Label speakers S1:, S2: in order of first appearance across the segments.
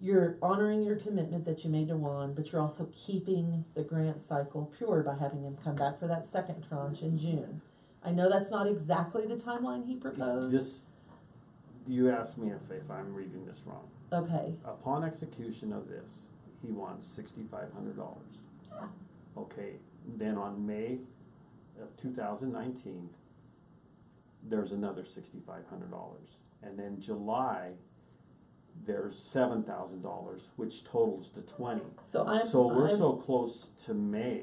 S1: you're honoring your commitment that you made to Juan, but you're also keeping the grant cycle pure by having him come back for that second tranche in June. I know that's not exactly the timeline he proposed.
S2: This, Uh, you asked me if, if I'm reading this wrong.
S1: Okay,
S2: Upon execution of this, he wants sixty-five hundred dollars. Okay, then on May of two thousand nineteen, there's another sixty-five hundred dollars. And then July, there's seven thousand dollars, which totals to twenty.
S1: so I'm,
S2: So we're
S1: I'm,
S2: so close to May.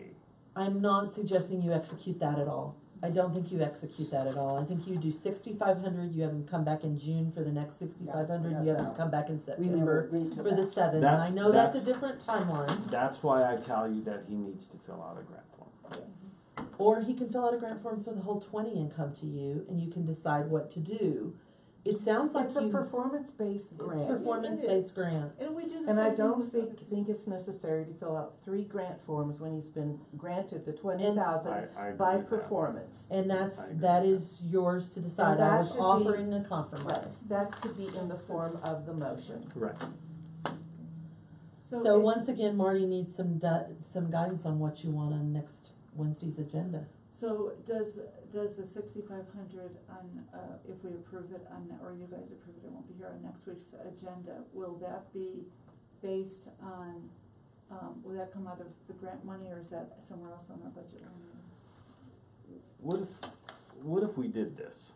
S1: I'm not suggesting you execute that at all. I don't think you execute that at all. I think you do sixty-five hundred, you have him come back in June for the next sixty-five hundred, you have him
S3: that's
S1: come back in
S3: We
S1: September
S3: never agreed to
S1: for the
S3: that.
S1: seven. And I
S2: That's-
S1: know that's a
S2: that's-
S1: different timeline.
S2: That's why I tell you that he needs to fill out a grant form.
S1: Or he can fill out a grant form for the whole twenty and come to you and you can decide what to do. It sounds like
S4: It's a
S1: you,
S4: performance-based
S1: it's
S4: grant,
S1: performance-based grant.
S5: And we do the same thing.
S4: and I don't
S5: with
S4: think, think it's necessary to fill out three grant forms when he's been granted the twenty
S2: I,
S4: thousand
S2: I agree
S4: by
S2: with that.
S4: performance.
S1: And that's,
S2: I agree.
S1: that is yours to decide. I
S4: that
S1: was
S4: should be-
S1: offering a compromise.
S4: That could be in the form of the motion.
S2: Correct.
S1: So
S5: it-
S1: once again, Marty needs some du- some guidance on what you want on next Wednesday's agenda.
S5: So does, does the sixty-five hundred on, uh, if we approve it on, or you guys approve it, it won't be here on next week's agenda, will that be based on, um, will that come out of the grant money or is that somewhere else on our budget? line?
S2: What if, what if we did this?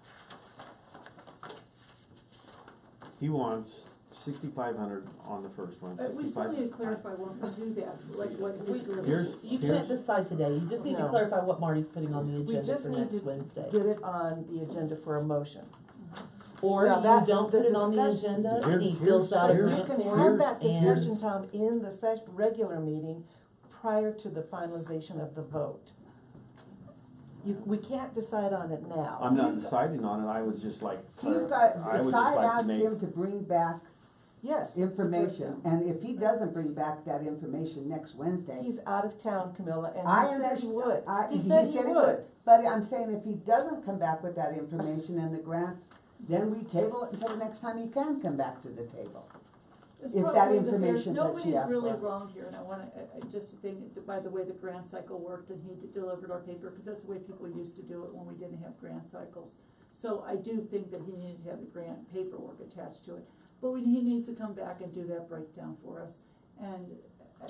S2: He wants sixty-five hundred on the first one.
S5: Uh, we still
S2: 65
S5: need to clarify when we do that, like what
S1: We-
S5: his deliverables.
S2: Here's-
S1: You can't decide today. You just need to
S4: No.
S1: clarify what Marty's putting on the
S4: We
S1: agenda
S4: just
S1: for
S4: need
S1: next
S4: to
S1: Wednesday.
S4: get it on the agenda for a motion.
S1: Or
S4: Now
S1: you
S4: that-
S1: don't
S4: the
S1: put it on the
S4: discussion-
S1: agenda
S2: Here-
S1: and he
S2: here's-
S1: fills out a
S2: here's-
S4: You
S1: grant
S4: can
S1: form
S4: have
S1: and.
S4: that discussion, Tom, in the session, regular meeting prior to the finalization of the vote. You, we can't decide on it now.
S2: I'm not deciding on it, I would just like.
S3: He's
S2: clar-
S3: got,
S2: I would just
S3: the
S2: like
S3: side
S2: to
S3: asked
S2: make-
S3: him to bring back
S4: Yes,
S3: information, and if he doesn't bring back that information next Wednesday,
S4: he's out of town, Camilla,
S3: I
S4: and he said he
S3: understand-
S4: would.
S3: I,
S4: He said he would.
S3: But I'm saying if he doesn't come back with that information and the grant, then we table it until the next time he can come back to the table.
S5: It's
S3: if that
S5: probably the fair-
S3: information that she asked
S5: Nobody's really
S3: for.
S5: wrong here, and I wanna, I, I just think, that by the way the grant cycle worked and he d- delivered our paper, cause that's the way people used to do it when we didn't have grant cycles. So I do think that he needed to have the grant paperwork attached to it, but we, he needs to come back and do that breakdown for us, and,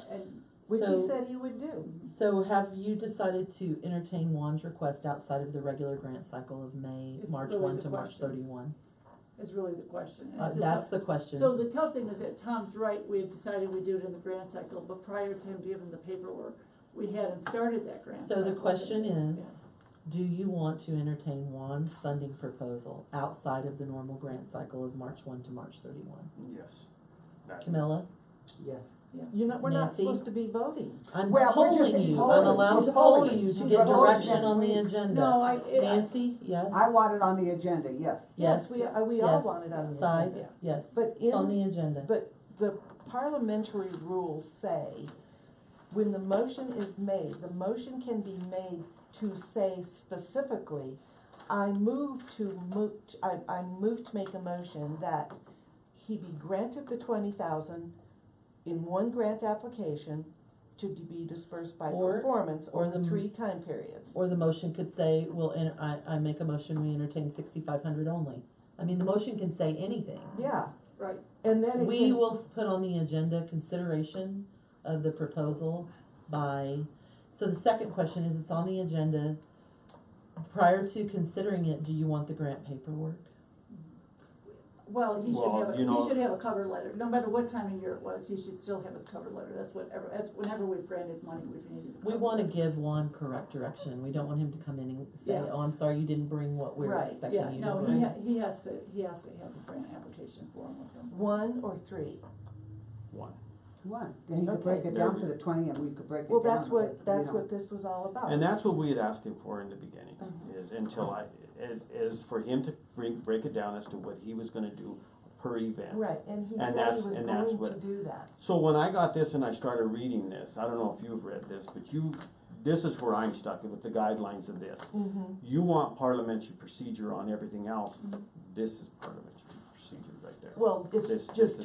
S5: and,
S4: Which
S1: So-
S4: he said he would do.
S1: So have you decided to entertain Juan's request outside of the regular grant cycle of May,
S5: It's
S1: March
S5: really
S1: one
S5: the
S1: to March
S5: question.
S1: thirty-one?
S5: is really the question. And
S1: Uh,
S5: it's a
S1: that's
S5: tough-
S1: the question.
S5: So the tough thing is that Tom's right, we had decided we do it in the grant cycle, but prior to him giving the paperwork, we hadn't started that grant
S1: So
S5: cycle.
S1: the question is,
S5: Yeah.
S1: do you want to entertain Juan's funding proposal outside of the normal grant cycle of March one to March thirty-one?
S2: Yes. That-
S1: Camilla,
S3: Yes.
S4: You know, we're not
S1: Nancy?
S4: supposed to be voting.
S1: I'm
S3: Well, we're just
S1: polling you, I'm
S3: polling.
S1: allowed
S3: She's
S1: to poll
S3: polling.
S1: you
S3: She's
S1: to get
S3: polling
S1: direction
S3: next
S1: on the
S3: week.
S1: agenda.
S5: No, I, it, I-
S1: Nancy, yes,
S3: I want it on the agenda, yes.
S1: yes,
S4: We, uh, we all
S1: yes.
S4: want it on the
S1: side,
S4: agenda.
S1: yes,
S4: But
S1: it's on
S4: in,
S1: the agenda.
S4: but the parliamentary rules say, when the motion is made, the motion can be made to say specifically, I move to mo- t- I, I move to make a motion that he be granted the twenty thousand in one grant application to be dispersed by
S1: Or-
S4: performance
S1: or
S4: over
S1: the-
S4: three time periods.
S1: Or the motion could say, well, and I, I make a motion, we entertain sixty-five hundred only. I mean, the motion can say anything.
S4: Yeah,
S5: right,
S4: and then it
S1: We
S4: can-
S1: will s- put on the agenda consideration of the proposal by, so the second question is, it's on the agenda. Prior to considering it, do you want the grant paperwork?
S5: Well, he should
S2: Well,
S5: have, a-
S2: you know-
S5: he should have a cover letter, no matter what time of year it was, he should still have his cover letter, that's whatever, that's whenever we've granted money, we've needed. a
S1: We
S5: cover
S1: wanna
S5: letter.
S1: give Juan correct direction, we don't want him to come in and say,
S5: Yeah.
S1: oh, I'm sorry, you didn't bring what we were
S4: Right,
S1: expecting
S5: Yeah,
S1: you to
S5: no, he
S1: bring.
S5: ha- he has to, he has to have a grant application form with him.
S4: one or three.
S2: One.
S3: One, then he could break
S4: Okay.
S3: it down for the twenty and we could break it down.
S4: Well, that's
S3: but, you
S4: what, that's
S3: know.
S4: what this was all about.
S2: And that's what we had asked him for in the beginning,
S5: Mm-hmm.
S2: is until I, is, is for him to bring, break it down as to what he was gonna do per event.
S4: Right, and he
S2: And
S4: said
S2: that's-
S4: he was
S2: and that's
S4: going to
S2: what-
S4: do that.
S2: So when I got this and I started reading this, I don't know if you've read this, but you, this is where I'm stuck with the guidelines of this.
S4: Mm-hmm.
S2: You want parliamentary procedure on everything else, this is parliamentary procedure right there.
S4: Well, it's
S2: This- this
S4: just
S2: is